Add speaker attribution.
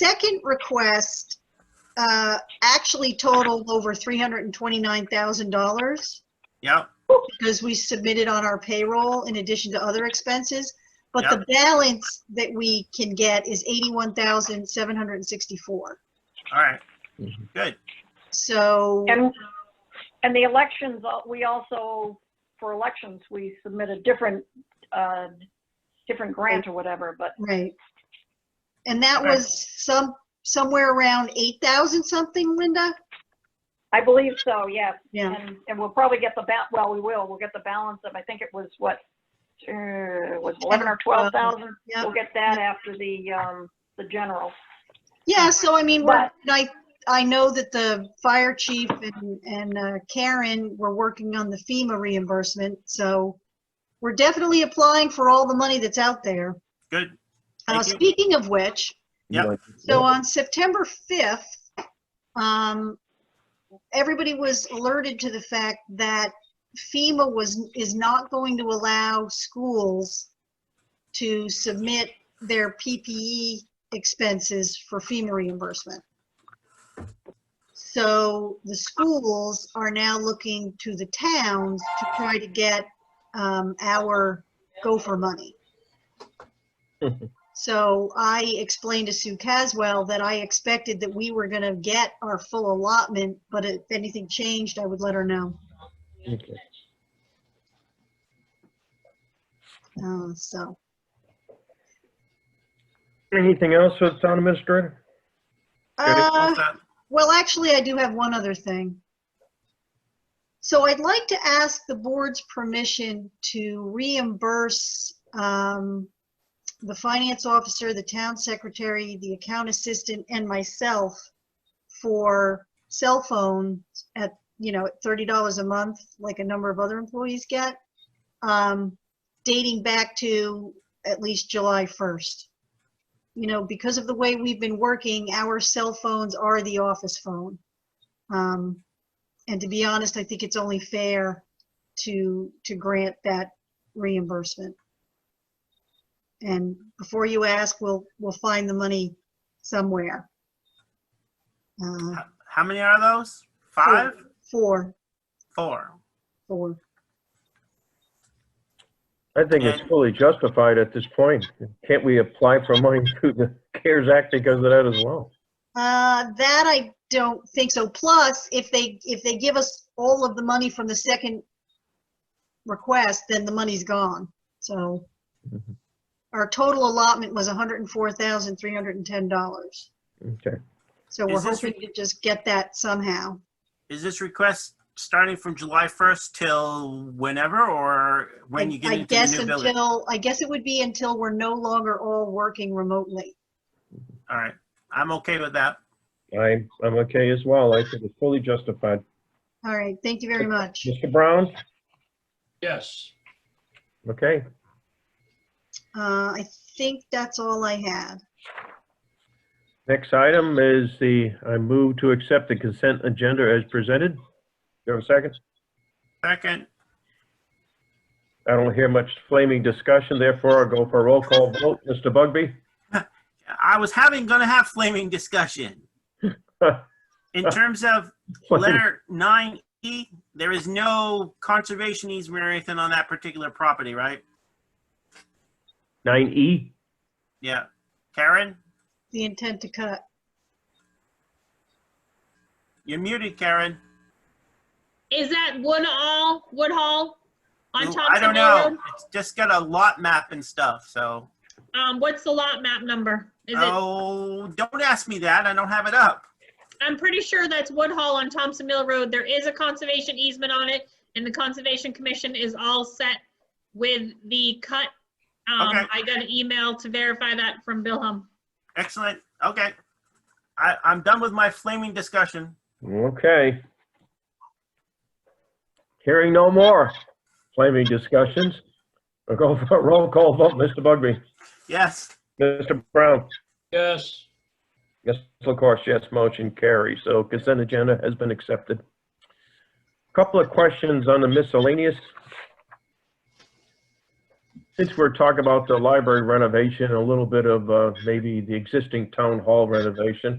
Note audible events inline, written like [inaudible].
Speaker 1: second request uh, actually totaled over $329,000
Speaker 2: Yep,
Speaker 1: because we submitted on our payroll in addition to other expenses. But the balance that we can get is 81,764.
Speaker 2: all right,
Speaker 3: Mhm.
Speaker 2: good.
Speaker 1: So,
Speaker 4: And, and the elections, uh, we also, for elections, we submit a different, uh, different grant or whatever, but
Speaker 1: right. And that
Speaker 2: Right.
Speaker 1: was some, somewhere around 8,000 something, Linda?
Speaker 4: I believe so, yes.
Speaker 1: Yeah.
Speaker 4: And, and we'll probably get the ba, well, we will, we'll get the balance of, I think it was what, uh, was 11 or 12,000?
Speaker 1: Yeah.
Speaker 4: We'll get that after the, um, the general.
Speaker 1: Yeah, so I mean, we're-
Speaker 4: But-
Speaker 1: I, I know that the fire chief and, and uh, Karen were working on the FEMA reimbursement, so we're definitely applying for all the money that's out there.
Speaker 2: Good.
Speaker 1: Uh,
Speaker 2: Thank you.
Speaker 1: speaking of which,
Speaker 2: Yep.
Speaker 1: so uh, on September 5th, um, everybody was alerted to the fact that FEMA was, is not going to allow schools to submit their PPE expenses for FEMA reimbursement. So the schools are now looking to the towns to try to get, um, our gopher money. So I explained to Sue Caswell that I expected that we were gonna get our full allotment, but if anything changed, I would let her know.
Speaker 3: Okay.
Speaker 1: Uh, so,
Speaker 5: Anything else with town administrator?
Speaker 1: uh,
Speaker 2: What's that?
Speaker 1: well, actually, I do have one other thing. So I'd like to ask the board's permission to reimburse, um, the finance officer, the town secretary, the account assistant, and myself for cell phone at, you know, at thirty dollars a month, like a number of other employees get, um, dating back to at least July first. You know, because of the way we've been working, our cell phones are the office phone. Um, and to be honest, I think it's only fair to, to grant that reimbursement. And before you ask, we'll, we'll find the money somewhere. Uh,
Speaker 2: How many are those? Five?
Speaker 1: Four,
Speaker 2: Four?
Speaker 1: four.
Speaker 5: I think it's fully justified at this point. Can't we apply for money [laughs] through the CARES Act because of that as well?
Speaker 1: Uh, that I don't think so. Plus, if they, if they give us all of the money from the second request, then the money's gone. So
Speaker 2: Mm-hmm.
Speaker 3: Mhm.
Speaker 1: our total allotment was hundred and four thousand, three hundred and ten dollars.
Speaker 5: Okay.
Speaker 1: So we're
Speaker 2: Is this-
Speaker 1: hoping to just get that somehow.
Speaker 2: Is this request starting from July 1st till whenever or when you get
Speaker 1: I
Speaker 2: into
Speaker 1: guess
Speaker 2: the new building?
Speaker 1: until I guess it would be until we're no longer all working remotely.
Speaker 2: All right, I'm okay with that.
Speaker 5: I, I'm okay as well. I think it's fully justified.
Speaker 1: All right, thank you very much.
Speaker 5: Mr. Brown?
Speaker 6: Yes.
Speaker 5: Okay.
Speaker 1: Uh, I think that's all I had.
Speaker 5: Next item is the, I move to accept the consent agenda as presented. You have a second?
Speaker 2: Second,
Speaker 5: I don't hear much flaming discussion, therefore I'll go for a roll call vote. Mr. Bugby?
Speaker 2: I was having, gonna have flaming discussion. In terms of letter 9E, there is no conservation easement or anything on that particular property, right?
Speaker 5: 9E?
Speaker 2: Yeah. Karen,
Speaker 1: The intent to cut.
Speaker 2: you're muted, Karen.
Speaker 7: Is that Woodall, Woodhall on
Speaker 2: Ooh,
Speaker 7: Thompson Road?
Speaker 2: I don't know. It's just got a lot map and stuff, so.
Speaker 7: Um, what's the lot map number? Is it,
Speaker 2: Oh, don't ask me that. I don't have it up.
Speaker 7: I'm pretty sure that's Woodhall on Thompson Mill Road. There is a conservation easement on it and the Conservation Commission is all set with the cut.
Speaker 2: Okay.
Speaker 7: Um, I got an email to verify that from Bill Hum.
Speaker 2: Excellent. Okay. I, I'm done with my flaming discussion.
Speaker 5: Okay. Hearing no more flaming discussions. We'll go for a roll call vote. Mr. Bugby?
Speaker 2: Yes.
Speaker 5: Mr. Brown?
Speaker 6: Yes.
Speaker 5: Yes, of course, yes, motion carries. So consent agenda has been accepted. Couple of questions on the miscellaneous. Since we're talking about the library renovation, a little bit of uh, maybe the existing town hall renovation,